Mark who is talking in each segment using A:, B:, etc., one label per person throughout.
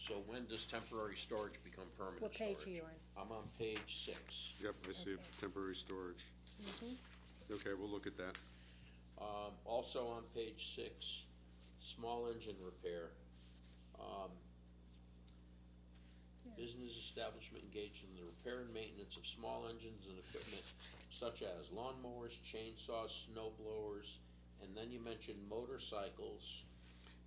A: So when does temporary storage become permanent
B: What
A: storage?
B: page are you on?
A: I'm on page six.
C: Yep, I see
B: Okay.
C: temporary storage. Okay, we'll look at that.
A: Um, also on page six, small engine repair. Um,
B: Yeah.
A: Business establishment engaged in the repair and maintenance of small engines and equipment such as lawnmowers, chainsaws, snow blowers, and then you mentioned motorcycles.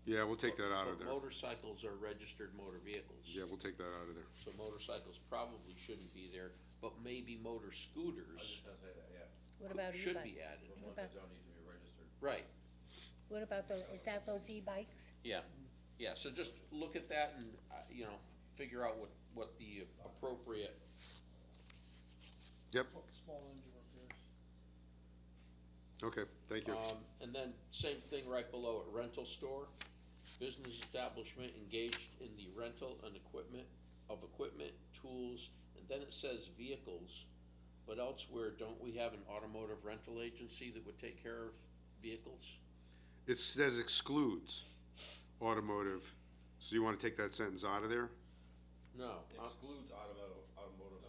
C: Yeah, we'll take that out of
A: But
C: there.
A: Motorcycles are registered motor vehicles.
C: Yeah, we'll take that out of there.
A: So motorcycles probably shouldn't be there, but maybe motor
D: I was
A: scooters
D: just gonna say that, yeah,
B: What
A: could-
B: about
A: should
B: e-bike?
A: be added.
D: the
B: What
D: ones that
B: about-
D: don't need to be registered.
A: Right,
B: What about those, is that those e-bikes?
A: yeah, yeah, so just look at that and, uh, you know, figure out what, what the appropriate,
C: Yep,
E: Small engine repairs.
C: okay, thank you.
A: um, and then same thing right below it, rental store. Business establishment engaged in the rental and equipment, of equipment, tools, and then it says vehicles. But elsewhere, don't we have an automotive rental agency that would take care of vehicles?
C: It says excludes automotive, so you wanna take that sentence out of there?
A: No, uh,
D: Excludes automotive, automotive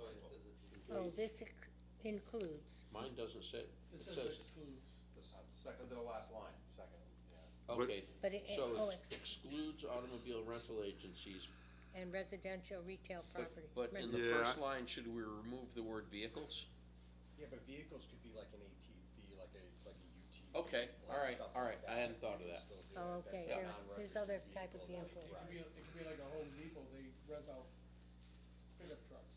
D: rental.
B: Oh, this ex- includes,
A: mine doesn't say, it
E: It says
A: says,
E: excludes.
D: The s- second to the last line, second, yeah.
A: okay,
B: but it, it-
A: so
B: oh,
A: it
B: it's,
A: excludes automobile rental agencies,
B: and residential retail
A: but,
B: property.
A: but in the
B: rental.
C: Yeah.
A: first line, should we remove the word vehicles?
F: Yeah, but vehicles could be like an ATV, like a, like a UTV.
A: Okay,
F: like
A: all right,
F: stuff
A: all
F: like
A: right, I hadn't thought of
F: You
A: that.
F: still do
B: Oh,
F: it.
B: okay,
F: That's a
B: there, there's
F: non-registered
B: other type of vehicle.
F: vehicle.
E: It could be, it could be like a Home Depot, they rent out pickup trucks.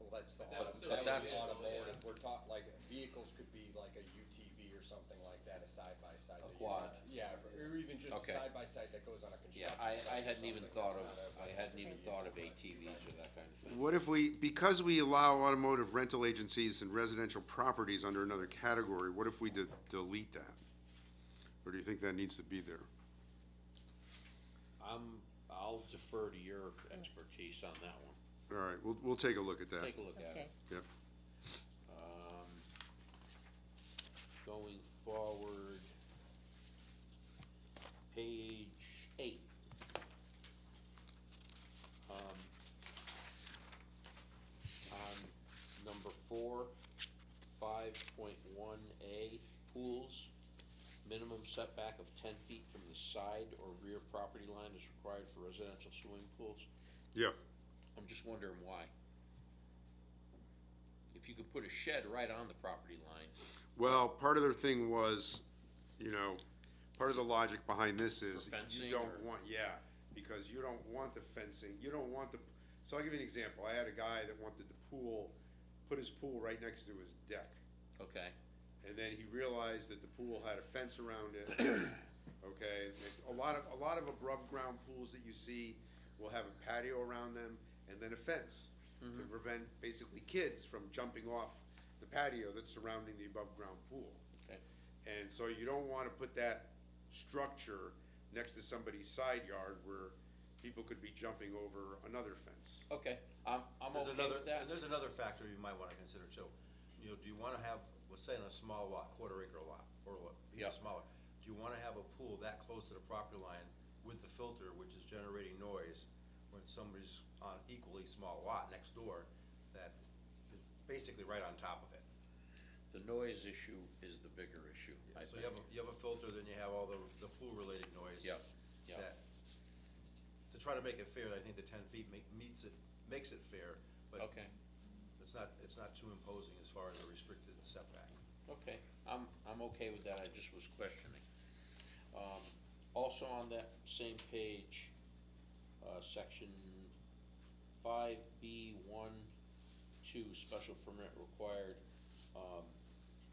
F: Well, that's the,
D: But
F: auto-
D: that's still
F: that's
D: a vehicle,
F: automotive, we're taught, like, vehicles could be like a UTV or something like that, a side-by-side.
A: A
F: that you
A: quad.
F: have. Yeah, or or even just a
A: Okay.
F: side-by-side that goes on a
A: Yeah,
F: construction
A: I,
F: site
A: I
F: or
A: hadn't even
F: something.
A: thought
F: That's
A: of,
F: not a-
A: I hadn't even thought of ATVs or that kind of thing.
C: What if we, because we allow automotive rental agencies and residential properties under another category, what if we de- delete that? Or do you think that needs to be there?
A: I'm, I'll defer to your expertise on that one,
C: All right, we'll, we'll take a look at that.
A: take a look at
B: Okay,
A: it.
C: Yeah,
A: Um, going forward, page eight. Um, on number four, five point one A, pools. Minimum setback of ten feet from the side or rear property line is required for residential swimming pools.
C: yeah,
A: I'm just wondering why. If you could put a shed right on the property line,
C: well, part of their thing was, you know, part of the logic behind this is
A: For fencing
C: you don't
A: or-
C: want, yeah, because you don't want the fencing, you don't want the, so I'll give you an example, I had a guy that wanted the pool, put his pool right next to his deck.
A: okay,
C: and then he realized that the pool had a fence around it. Okay, a lot of, a lot of above ground pools that you see will have a patio around them and then a fence to
A: Mm-hmm.
C: prevent basically kids from jumping off the patio that's surrounding the above ground pool.
A: okay,
C: And so you don't wanna put that structure next to somebody's side yard where people could be jumping over another fence.
A: okay, I'm, I'm
D: There's
A: okay
D: another,
A: with that.
D: and there's another factor you might wanna consider too. You know, do you wanna have, let's say on a small lot, quarter acre lot, or what,
A: Yeah.
D: even smaller, do you wanna have a pool that close to the property line with the filter, which is generating noise when somebody's on equally small lot next door that is basically right on top of it?
A: The noise issue is the bigger issue, I
D: So
A: think,
D: you have, a you have a filter, then you have all the, the pool-related noise.
A: Yeah, yeah.
D: that- To try to make it fair, I think the ten feet ma- meets it, makes it fair, but
A: okay,
D: it's not, it's not too imposing as far as a restricted setback.
A: okay, I'm, I'm okay with that, I just was questioning. Um, also on that same page, uh, section five B one, two, special permit required. Um,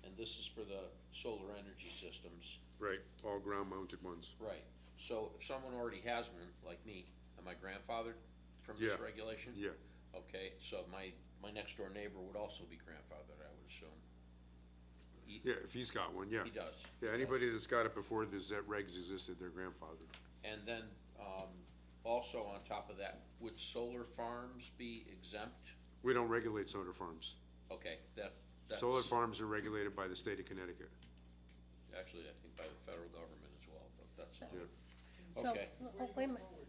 A: and this is for the solar energy systems.
C: Right. All ground mounted ones.
A: Right, so if someone already has one, like me, am I grandfathered from this
C: Yeah.
A: regulation?
C: Yeah,
A: Okay, so my, my next door neighbor would also be grandfathered, I would assume. He,
C: yeah, if he's got one, yeah.
A: he does.
C: Yeah, anybody that's got it before the ZET regs existed, their grandfather.
A: And then, um, also on top of that, would solar farms be exempt?
C: We don't regulate solar farms.
A: Okay, that, that's,
C: Solar farms are regulated by the state of Connecticut.
A: actually, I think by the federal government as well, but that's not,
C: Yeah.
B: so,
A: Okay.
B: oh, wait a minute,